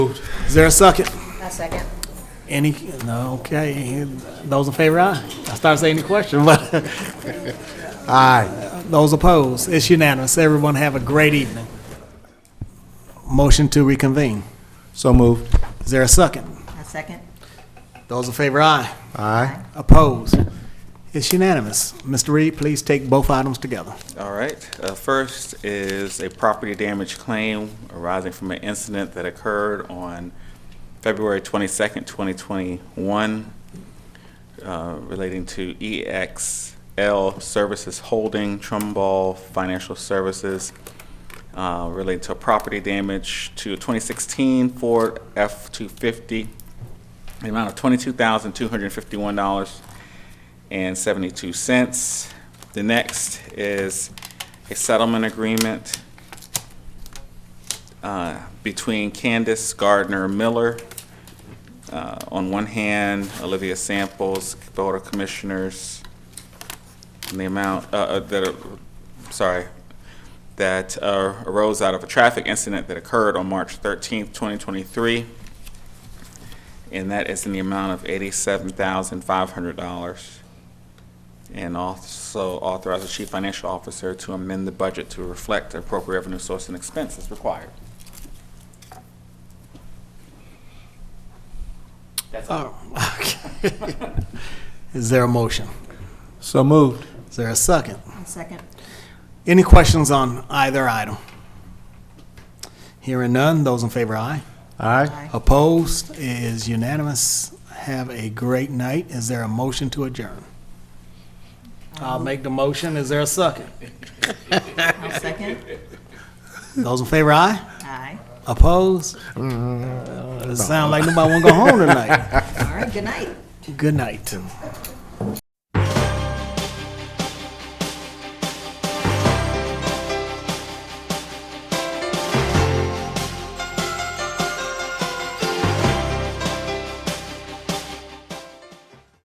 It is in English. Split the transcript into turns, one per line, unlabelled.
Is there a second?
A second.
Any, no, okay, those in favor, aye. I started saying the question, but. Aye. Those opposed, it's unanimous. Everyone have a great evening. Motion to reconvene.
So moved.
Is there a second?
A second.
Those in favor, aye.
Aye.
Opposed, it's unanimous. Mr. Reed, please take both items together.
All right, uh, first is a property damage claim arising from an incident that occurred on February 22nd, 2021, uh, relating to EXL Services Holding Trumbull Financial Services, uh, related to property damage to a 2016 Ford F-250, the amount of $22,251 and seventy-two cents. The next is a settlement agreement uh, between Candace Gardner Miller, uh, on one hand, Olivia Samples, Board of Commissioners, and the amount, uh, uh, that, uh, sorry, that uh, arose out of a traffic incident that occurred on March thirteenth, twenty twenty-three, and that is in the amount of eighty-seven thousand five hundred dollars. And also authorize the chief financial officer to amend the budget to reflect the appropriate revenue source and expense as required. That's all.
Oh, okay. Is there a motion?
So moved.
Is there a second?
A second.
Any questions on either item? Hearing none, those in favor, aye.
Aye.
Opposed is unanimous. Have a great night. Is there a motion to adjourn? I'll make the motion. Is there a second?
A second.
Those in favor, aye.
Aye.
Opposed? It sound like nobody want to go home tonight.
All right, good night.
Good night.